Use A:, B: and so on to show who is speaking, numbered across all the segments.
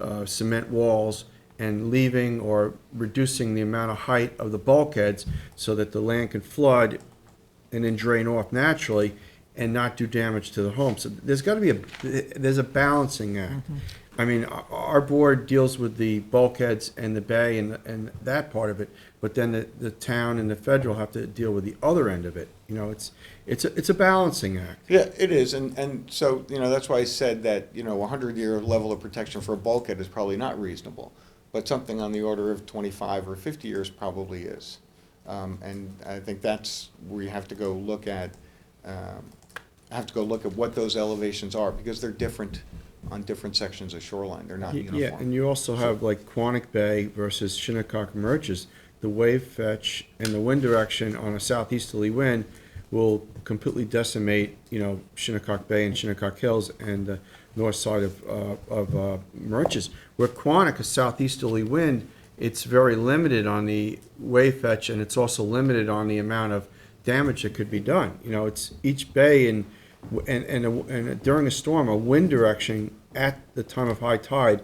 A: uh, cement walls and leaving or reducing the amount of height of the bulkheads so that the land can flood and then drain off naturally and not do damage to the home. So there's got to be a, there's a balancing act. I mean, our- our board deals with the bulkheads and the bay and, and that part of it, but then the, the town and the federal have to deal with the other end of it. You know, it's, it's, a- it's a balancing act.
B: Yeah, it is, and, and so, you know, that's why I said that, you know, a hundred-year level of protection for a bulkhead is probably not reasonable, but something on the order of twenty-five or fifty years probably is. Um, and I think that's where you have to go look at, um, have to go look at what those elevations are, because they're different on different sections of shoreline, they're not
A: Yeah, and
B: uniform.
A: you also have like Quonic Bay versus Shinnecock Merches. The wave fetch and the wind direction on a southeasterly wind will completely decimate, you know, Shinnecock Bay and Shinnecock Hills and the north side of, uh, of uh, Merches. Where Quonic, a southeasterly wind, it's very limited on the wave fetch and it's also limited on the amount of damage that could be done. You know, it's each bay and, and, and, a- and during a storm, a wind direction at the time of high tide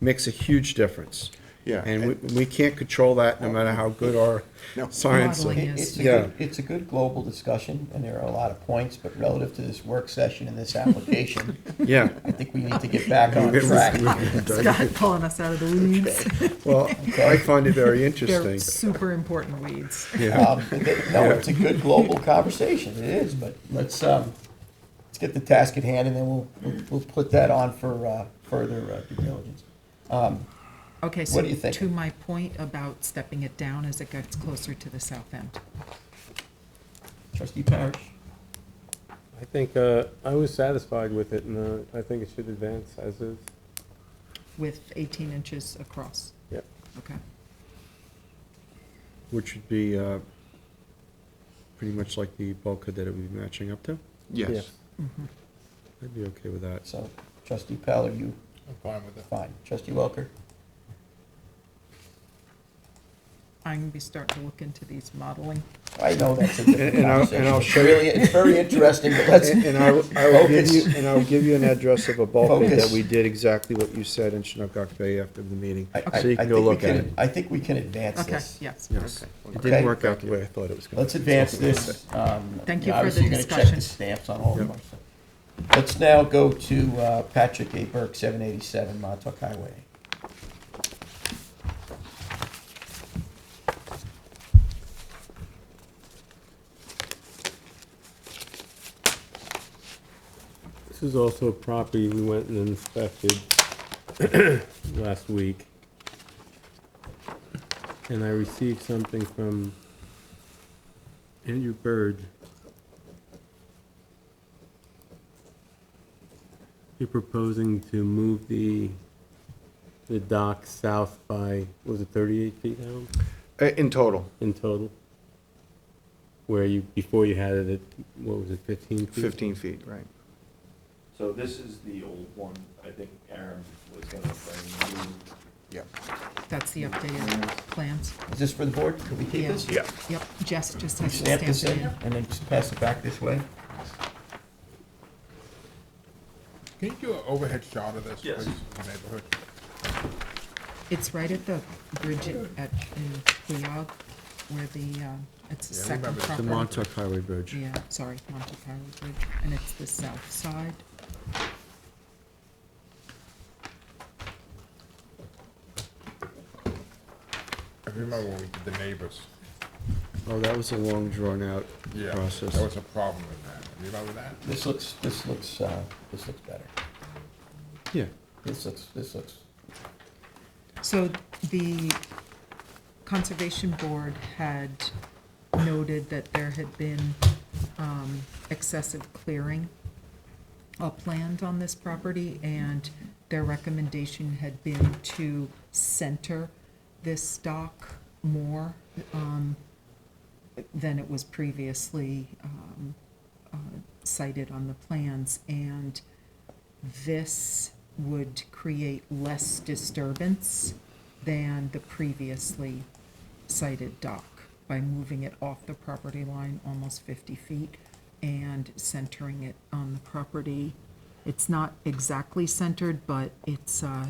A: makes a huge difference.
B: Yeah.
A: And we, we can't control that no matter how good our
B: No.
A: science.
C: Modeling
D: It- It's a
A: Yeah.
D: good, it's a good global discussion, and there are a lot of points, but relative to this work session and this application,
A: Yeah.
D: I think we need to get back on
A: We're-
D: track.
A: we're-
C: Scott pulling us out of the weeds.
A: Well, I find it very interesting.
C: They're super important weeds.
A: Yeah.
D: Um, No, it's a good global conversation, it is, but let's, um, let's get the task at hand, and then we'll, we'll- we'll put that on for uh, further uh, due diligence.
C: Okay, so
D: What do you think?
C: to my point about stepping it down as it gets closer to the south end.
D: Trustee Parrish?
E: I think, uh, I was satisfied with it, and, uh, I think it should advance as is.
C: with 18 inches across,
E: Yep.
C: okay?
A: Which would be, uh, pretty much like the bulkhead that it would be matching up to.
B: Yes.
E: Yes.
A: I'd be okay with that.
D: So, trustee Pell, are you
F: I'm fine with it.
D: fine? Trustee Welker?
C: I'm gonna be starting to look into these modeling.
D: I know that's a different
A: And- and I'll- and
D: conversation.
A: I'll
D: It's
A: show you-
D: really- It's very interesting, but let's,
A: And and I, will- I will give you,
D: Focus.
A: and I'll give you an address of a bulkhead that
D: Focus.
A: we did exactly what you said in Shinnecock Bay after the meeting,
D: I- I-
A: so you
D: I
A: can go
D: think we
A: look at it.
D: I think we can advance
C: Okay,
D: this.
C: yes,
A: Yes,
C: okay.
A: it
D: Okay.
A: didn't work out the way I thought it was going to.
D: Let's advance this. um,
C: Thank you
D: now,
C: for
D: obviously
C: the
D: you're gonna check
C: discussion.
D: the stamps on all of them. Let's now go to uh, Patrick A. Burke, 787 Montauk Highway.
E: This is also a property we went and inspected last week. And I received something from Andrew Bird. You're proposing to move the, the dock south by, was it thirty-eight feet down?
B: Uh, In total,
E: in total? Where you, before you had it at, what was it, 15 feet?
B: fifteen feet, right.
G: So this is the old one, I think Aaron was gonna bring you.
B: Yeah.
C: That's the updated plans.
D: Is this for the board? Could we keep
C: Yeah.
D: this?
B: Yeah.
C: Yep, Jess just has
D: Stamp
C: to
D: this
C: stamp
D: in
C: it in.
D: and then just pass it back this way?
F: Can you do an overhead shot of this,
G: Yes.
F: please, in the neighborhood?
C: It's right at the bridge in- at, in Queog, where the, uh, it's the
F: Yeah, I
C: second
F: remember this.
A: The
C: property.
A: Montauk Highway Bridge.
C: Yeah, sorry, Montauk Highway Bridge, and it's the south side.
F: I remember when we did the neighbors.
A: Oh, that was a long, drawn-out
F: Yeah,
A: process.
F: there was a problem with that. Remember that?
D: This looks, this looks, uh, this looks better.
A: Yeah,
D: This looks, this looks,
C: So the Conservation Board had noted that there had been um, excessive clearing up land on this property, and their recommendation had been to center this dock more um, than it was previously um, uh, cited on the plans. And this would create less disturbance than the previously cited dock by moving it off the property line almost 50 feet and centering it on the property. It's not exactly centered, but it's uh,